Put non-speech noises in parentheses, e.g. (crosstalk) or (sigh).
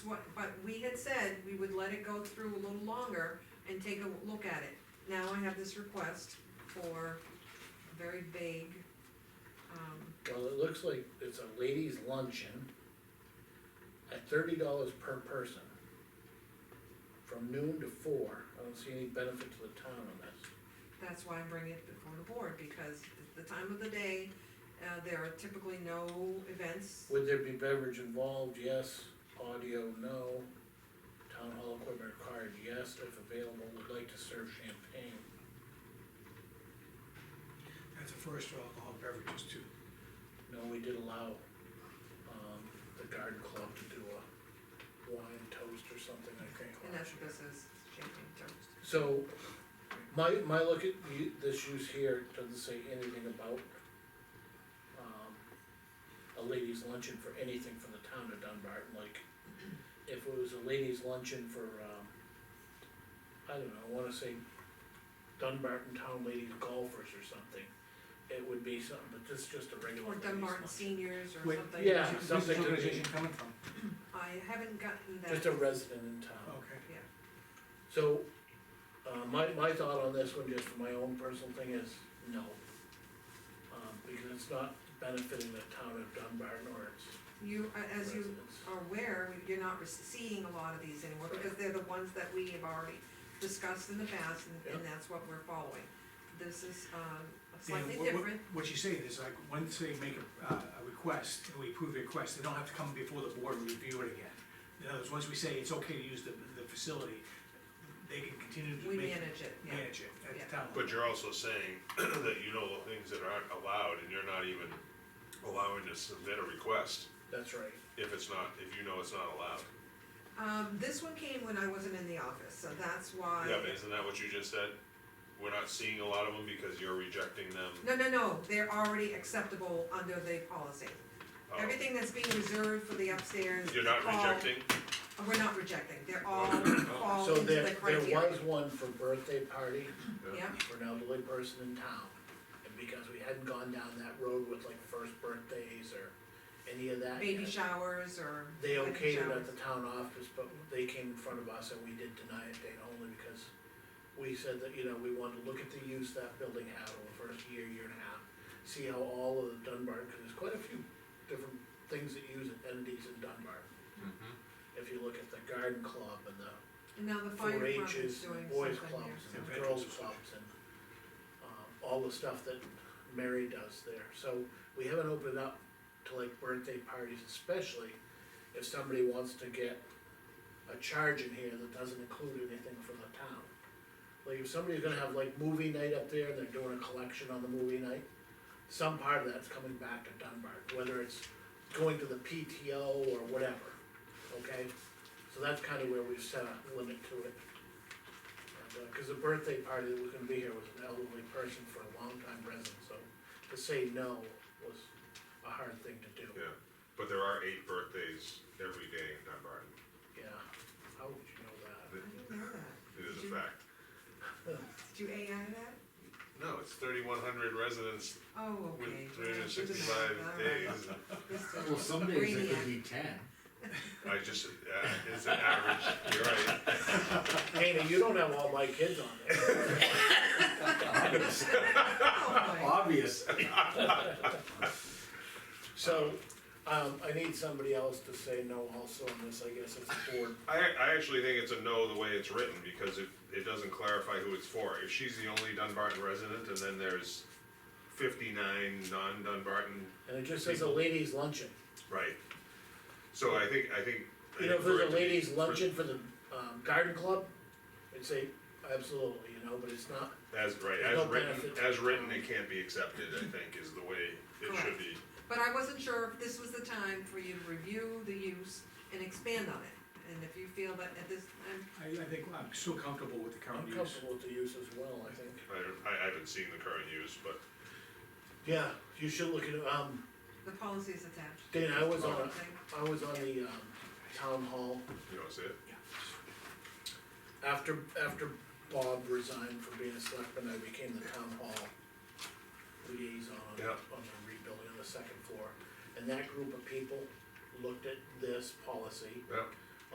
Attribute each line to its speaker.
Speaker 1: What, but we had said we would let it go through a little longer and take a look at it. Now I have this request for a very vague, um,
Speaker 2: Well, it looks like it's a ladies luncheon at thirty dollars per person. From noon to four, I don't see any benefit to the town on this.
Speaker 1: that's why I'm bringing it before the board, because at the time of the day, uh, there are typically no events.
Speaker 2: Would there be beverage involved? Yes. Audio, no. Town hall equipment required, yes, if available, would like to serve champagne.
Speaker 3: That's a first for alcohol beverages too.
Speaker 2: No, we did allow, um, the garden club to do a wine toast or something, I think.
Speaker 1: And that's what
Speaker 2: last year.
Speaker 1: this is, champagne toast.
Speaker 2: So, my, my look at u- this use here doesn't say anything about, um, a ladies luncheon for anything from the town of Dunbarton, like, if it was a ladies luncheon for, um, I don't know, I wanna say Dunbarton Town Ladies Golfers or something, it would be something, but this is just a regular
Speaker 1: Or
Speaker 2: ladies
Speaker 1: Dunbarton
Speaker 2: luncheon.
Speaker 1: seniors or
Speaker 3: Wait,
Speaker 1: something.
Speaker 2: yeah.
Speaker 3: Where's this
Speaker 2: something to do.
Speaker 3: organization coming from?
Speaker 1: I haven't gotten that.
Speaker 2: Just a resident in town.
Speaker 3: Okay.
Speaker 2: So, uh, my, my thought on this one, just for my own personal thing, is no. Um, because it's not benefiting the town of Dunbarton or its
Speaker 1: You, a- as you
Speaker 2: residents.
Speaker 1: are aware, you're not rec- seeing a lot of these anymore, because they're the ones that we have already discussed in the past, and, and that's what we're following. This is, um, slightly
Speaker 3: And what- what-
Speaker 1: different,
Speaker 3: What you're saying is like, once they make a, uh, a request, and we approve the request, they don't have to come before the board and review it again. In other words, once we say it's okay to use the, the facility, they can continue to
Speaker 1: we
Speaker 3: make,
Speaker 1: manage it, yeah.
Speaker 3: manage it at
Speaker 1: Yeah.
Speaker 3: the town.
Speaker 4: But you're also saying (clears throat) that you know the things that aren't allowed, and you're not even allowing to submit a request
Speaker 2: That's right.
Speaker 4: if it's not, if you know it's not allowed.
Speaker 1: Um, this one came when I wasn't in the office, so that's why.
Speaker 4: Yeah, but isn't that what you just said? We're not seeing a lot of them because you're rejecting them.
Speaker 1: No, no, no, they're already acceptable under the policy.
Speaker 4: Oh,
Speaker 1: Everything that's being reserved for the upstairs.
Speaker 4: You're not
Speaker 1: all-
Speaker 4: rejecting? Oh.
Speaker 1: We're not rejecting, they're all, all
Speaker 2: Oh. So
Speaker 1: into
Speaker 2: there,
Speaker 1: the
Speaker 2: there
Speaker 1: criteria.
Speaker 2: was one for birthday party
Speaker 1: Yeah,
Speaker 2: for an elderly person in town. And because we hadn't gone down that road with like first birthdays or any of that
Speaker 1: baby
Speaker 2: yet,
Speaker 1: showers or.
Speaker 2: They
Speaker 1: wedding
Speaker 2: okayed it
Speaker 1: showers.
Speaker 2: at the town office, but they came in front of us and we did deny it, Dana, only because we said that, you know, we wanted to look at the use that building had over the first year, year and a half. See how all of the Dunbar, cause there's quite a few different things that use entities in Dunbar. If you look at the garden club and the
Speaker 1: And now the fire
Speaker 2: four
Speaker 1: department's doing
Speaker 2: H's,
Speaker 1: something
Speaker 2: boys
Speaker 1: here,
Speaker 2: clubs
Speaker 1: so-
Speaker 2: and
Speaker 3: Yeah,
Speaker 2: girls
Speaker 3: veterans club.
Speaker 2: clubs and, um, all the stuff that Mary does there. So we haven't opened up to like birthday parties, especially if somebody wants to get a charge in here that doesn't include anything from the town. Like if somebody's gonna have like movie night up there, and they're doing a collection on the movie night, some part of that's coming back to Dunbar, whether it's going to the PTO or whatever, okay? So that's kinda where we've set a limit to it. And, uh, Cause the birthday party that was gonna be here was an elderly person for a long time resident, so to say no was a hard thing to do.
Speaker 4: Yeah, but there are eight birthdays every day in Dunbarton.
Speaker 2: Yeah, how would you know that?
Speaker 1: I didn't know that.
Speaker 4: It is
Speaker 1: Did
Speaker 4: a
Speaker 1: you-
Speaker 4: fact.
Speaker 1: Did you AI that?
Speaker 4: No, it's thirty-one hundred residents
Speaker 1: Oh,
Speaker 4: with
Speaker 1: okay.
Speaker 4: three hundred and
Speaker 1: All
Speaker 4: sixty-five
Speaker 1: right.
Speaker 4: days.
Speaker 1: This
Speaker 5: Well,
Speaker 1: is
Speaker 5: some days it
Speaker 1: Brainiac.
Speaker 5: could be ten.
Speaker 4: I just, uh, it's an average, you're right.
Speaker 2: Dana, you don't have all my kids on there.
Speaker 1: Oh,
Speaker 5: Obvious.
Speaker 2: So, um, I need somebody else to say no also on this, I guess it's a board.
Speaker 4: I, I actually think it's a no the way it's written, because it, it doesn't clarify who it's for. If she's the only Dunbarton resident, and then there's fifty-nine non-Dunbarton,
Speaker 2: And it just says a ladies luncheon.
Speaker 4: right? So I think, I think. I
Speaker 2: You know, if
Speaker 4: think for it
Speaker 2: there's
Speaker 4: to
Speaker 2: a
Speaker 4: be-
Speaker 2: ladies
Speaker 4: for-
Speaker 2: luncheon for the, um, garden club, I'd say absolutely, you know, but it's not,
Speaker 4: As, right,
Speaker 2: There's no
Speaker 4: as written,
Speaker 2: benefit.
Speaker 4: as written, it can't be accepted, I think, is the way it should be.
Speaker 1: But I wasn't sure if this was the time for you to review the use and expand on it, and if you feel that at this, time
Speaker 3: I, I think I'm still comfortable with the current
Speaker 2: I'm
Speaker 3: use.
Speaker 2: comfortable with the use as well, I think.
Speaker 4: I, don't- I haven't seen the current use, but
Speaker 2: Yeah, you should look at, um,
Speaker 1: the policy is attached.
Speaker 2: Dana, I was on,
Speaker 1: Okay.
Speaker 2: a- I was on the, um, town hall
Speaker 4: you don't see it.
Speaker 2: After, after Bob resigned from being a selectman, I became the town hall liaison on
Speaker 4: Yeah.
Speaker 2: the rebuilding on the second floor. And that group of people looked at this policy
Speaker 4: Yeah,